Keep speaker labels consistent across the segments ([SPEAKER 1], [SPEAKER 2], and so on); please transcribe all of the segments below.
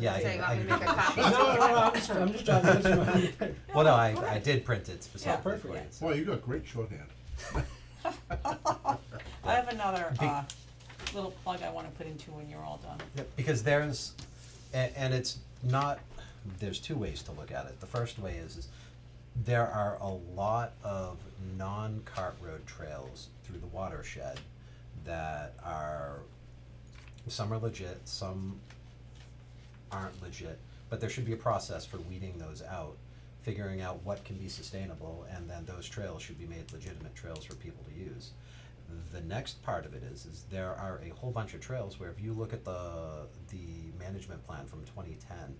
[SPEAKER 1] Yeah, I-
[SPEAKER 2] So you
[SPEAKER 1] I-
[SPEAKER 2] want me to make a copy?
[SPEAKER 3] No, no, no, I'm just, I'm just trying to get you my.
[SPEAKER 1] Well, no, I, I did print it specifically for you.
[SPEAKER 4] perfect.
[SPEAKER 1] so-
[SPEAKER 5] Boy, you got great shorthand.
[SPEAKER 4] I have another,
[SPEAKER 1] Be-
[SPEAKER 4] uh, little plug I wanna put into when you're all done.
[SPEAKER 1] Because there's, and, and it's not, there's two ways to look at it. The first way is, is there are a lot of non-cart road trails through the watershed that are, some are legit, some aren't legit, but there should be a process for weeding those out, figuring out what can be sustainable, and then those trails should be made legitimate trails for people to use. The next part of it is, is there are a whole bunch of trails where if you look at the, the management plan from twenty ten,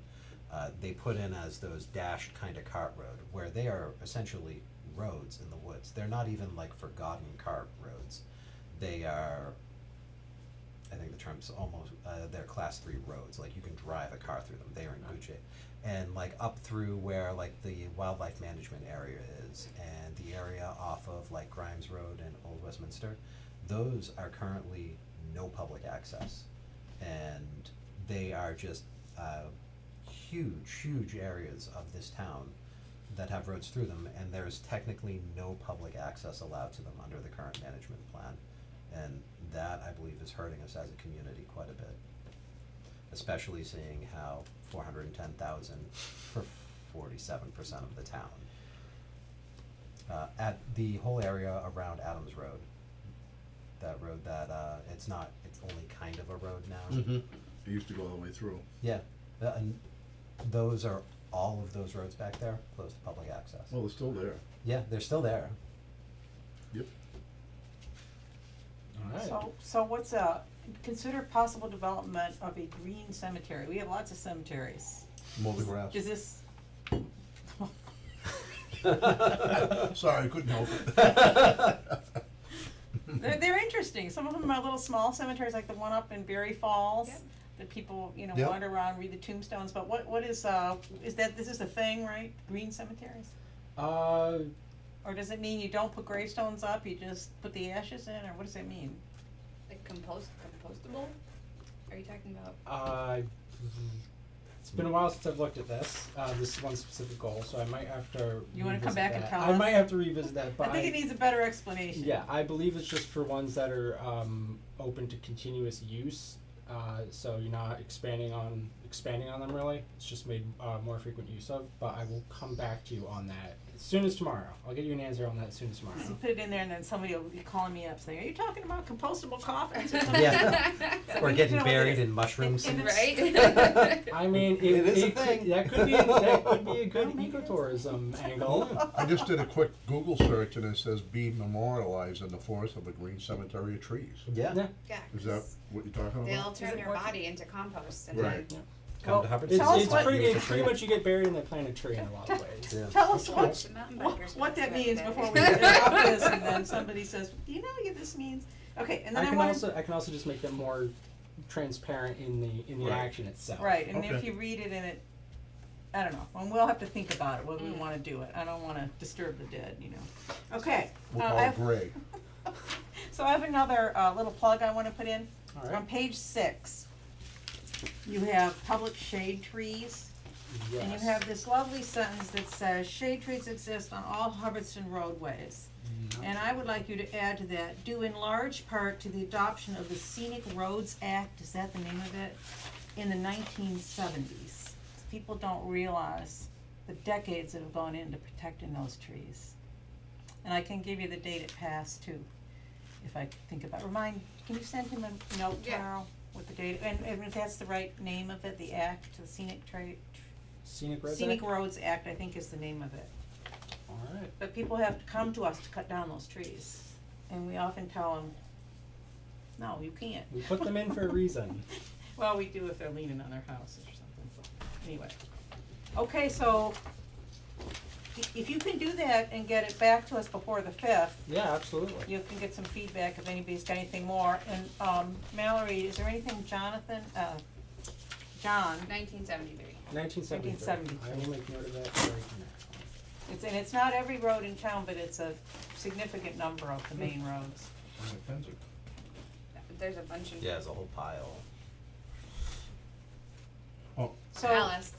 [SPEAKER 1] uh, they put in as those dashed kind of cart road, where they are essentially roads in the woods. They're not even like forgotten cart roads. They are I think the term's almost, uh, they're class three roads, like you can drive a car through them, they are in good shape. And like up through where like the wildlife management area is and the area off of like Grimes Road and Old Westminster, those are currently no public access. And they are just, uh, huge, huge areas of this town that have roads through them and there's technically no public access allowed to them under the current management plan. And that, I believe, is hurting us as a community quite a bit. Especially seeing how four hundred and ten thousand for forty-seven percent of the town. Uh, at the whole area around Adams Road, that road that, uh, it's not, it's only kind of a road now.
[SPEAKER 5] It used to go all the way through.
[SPEAKER 1] Yeah, uh, and those are, all of those roads back there, closed to public access.
[SPEAKER 5] Well, it's still there.
[SPEAKER 1] Yeah, they're still there.
[SPEAKER 5] Yep.
[SPEAKER 3] Alright,
[SPEAKER 4] So, so what's a, consider possible development of a green cemetery, we have lots of cemeteries,
[SPEAKER 1] Molded grass.
[SPEAKER 4] is this?
[SPEAKER 5] Sorry, couldn't help
[SPEAKER 4] They're, they're interesting, some of them are little small cemeteries, like the one up in Berry Falls,
[SPEAKER 2] Yep.
[SPEAKER 4] that people, you know,
[SPEAKER 5] Yep.
[SPEAKER 4] wander around, read the tombstones, but what, what is, uh, is that, this is a thing, right, green cemeteries?
[SPEAKER 3] uh,
[SPEAKER 4] Or does it mean you don't put gravestones up, you just put the ashes in, or what does it mean?
[SPEAKER 2] Like compost, compostable? Are you talking about?
[SPEAKER 3] I, it's been a while since I've looked at this, uh, this is one specific goal, so I might have to
[SPEAKER 4] You wanna come
[SPEAKER 3] revisit
[SPEAKER 4] back and
[SPEAKER 3] that.
[SPEAKER 4] tell
[SPEAKER 3] I
[SPEAKER 4] us?
[SPEAKER 3] might have to revisit that, but
[SPEAKER 4] I think it needs a better explanation.
[SPEAKER 3] Yeah, I believe it's just for ones that are um, open to continuous use. Uh, so you're not expanding on expanding on them really. It's just made uh, more frequent use of. But I will come back to you on that as soon as tomorrow. I'll get you an answer on that as soon as tomorrow.
[SPEAKER 4] So put it in there and then somebody will be calling me up saying, are you talking about compostable coffins or something?
[SPEAKER 1] Yeah. Or
[SPEAKER 4] We
[SPEAKER 1] getting
[SPEAKER 4] know what it
[SPEAKER 1] buried
[SPEAKER 4] is.
[SPEAKER 1] in mushroom
[SPEAKER 4] And- and
[SPEAKER 1] seeds.
[SPEAKER 2] Right?
[SPEAKER 3] I mean, it,
[SPEAKER 1] It is a
[SPEAKER 3] could-
[SPEAKER 1] thing.
[SPEAKER 3] That could be that could be a good
[SPEAKER 4] Oh, maybe it's-
[SPEAKER 3] ecotourism angle.
[SPEAKER 5] I just did a quick Google search and it says be memorialized in the forest of a green cemetery of trees.
[SPEAKER 1] Yeah,
[SPEAKER 3] Yeah.
[SPEAKER 2] Yeah.
[SPEAKER 5] Is that what you're talking
[SPEAKER 2] They'll
[SPEAKER 5] about?
[SPEAKER 4] Is it
[SPEAKER 2] turn their
[SPEAKER 4] working?
[SPEAKER 2] body into compost and
[SPEAKER 5] Right.
[SPEAKER 2] then.
[SPEAKER 1] come to Hubbard's.
[SPEAKER 3] It's,
[SPEAKER 4] Tell us
[SPEAKER 3] it's
[SPEAKER 4] what-
[SPEAKER 3] pretty
[SPEAKER 1] Use a
[SPEAKER 3] it's pretty
[SPEAKER 1] tree.
[SPEAKER 3] much you get buried and they plant a tree in a lot of ways.
[SPEAKER 1] Yeah.
[SPEAKER 4] Tell us what,
[SPEAKER 2] The mountain
[SPEAKER 4] what,
[SPEAKER 2] bikers
[SPEAKER 4] what that
[SPEAKER 2] back
[SPEAKER 4] means
[SPEAKER 2] then.
[SPEAKER 4] before we get up this and then somebody says, do you know what this means? Okay, and
[SPEAKER 3] I
[SPEAKER 4] then I
[SPEAKER 3] can
[SPEAKER 4] wanted,
[SPEAKER 3] also I can also just make them more transparent in the in the
[SPEAKER 5] Right.
[SPEAKER 3] action itself.
[SPEAKER 4] right, and if
[SPEAKER 5] Okay.
[SPEAKER 4] you read it in it, I don't know, and we'll have to think about it, whether we
[SPEAKER 2] Mm.
[SPEAKER 4] wanna do it, I don't wanna disturb the dead, you know. Okay, uh,
[SPEAKER 5] We'll
[SPEAKER 4] I
[SPEAKER 5] call it
[SPEAKER 4] have,
[SPEAKER 5] gray.
[SPEAKER 4] so I have another, uh, little plug I wanna put in.
[SPEAKER 3] All right.
[SPEAKER 4] On page six, you have public shade trees,
[SPEAKER 3] Yes.
[SPEAKER 4] and you have this lovely sentence that says, shade trees exist on all Hubbardston roadways. And I would like you to add to that, due in large part to the adoption of the Scenic Roads Act, is that the name of it? In the nineteen seventies. People don't realize the decades that have gone into protecting those trees. And I can give you the date it passed too, if I think about, remind, can you send him a note
[SPEAKER 2] Yeah.
[SPEAKER 4] tomorrow with the date? And, and if that's the right name of it, the act, the Scenic Tra-
[SPEAKER 3] Scenic Roads
[SPEAKER 4] Scenic Roads Act, I think is the name of it.
[SPEAKER 3] All right.
[SPEAKER 4] But people have to come to us to cut down those trees, and we often tell them, no, you can't.
[SPEAKER 3] We put them in for a reason.
[SPEAKER 4] Well, we do if they're leaning on their houses or something, but anyway. Okay, so i- if you can do that and get it back to us before the fifth,
[SPEAKER 3] Yeah, absolutely.
[SPEAKER 4] you can get some feedback if anybody's got anything more. And, um, Mallory, is there anything Jonathan, uh, John,
[SPEAKER 2] Nineteen seventy-three.
[SPEAKER 3] 1973.
[SPEAKER 4] 1973.
[SPEAKER 3] I will make note of that right
[SPEAKER 4] it's, and it's not every road in town, but it's a significant number of the main roads.
[SPEAKER 2] There's a bunch of.
[SPEAKER 1] Yeah, there's a whole pile.
[SPEAKER 5] Oh,
[SPEAKER 4] So.
[SPEAKER 2] Alice,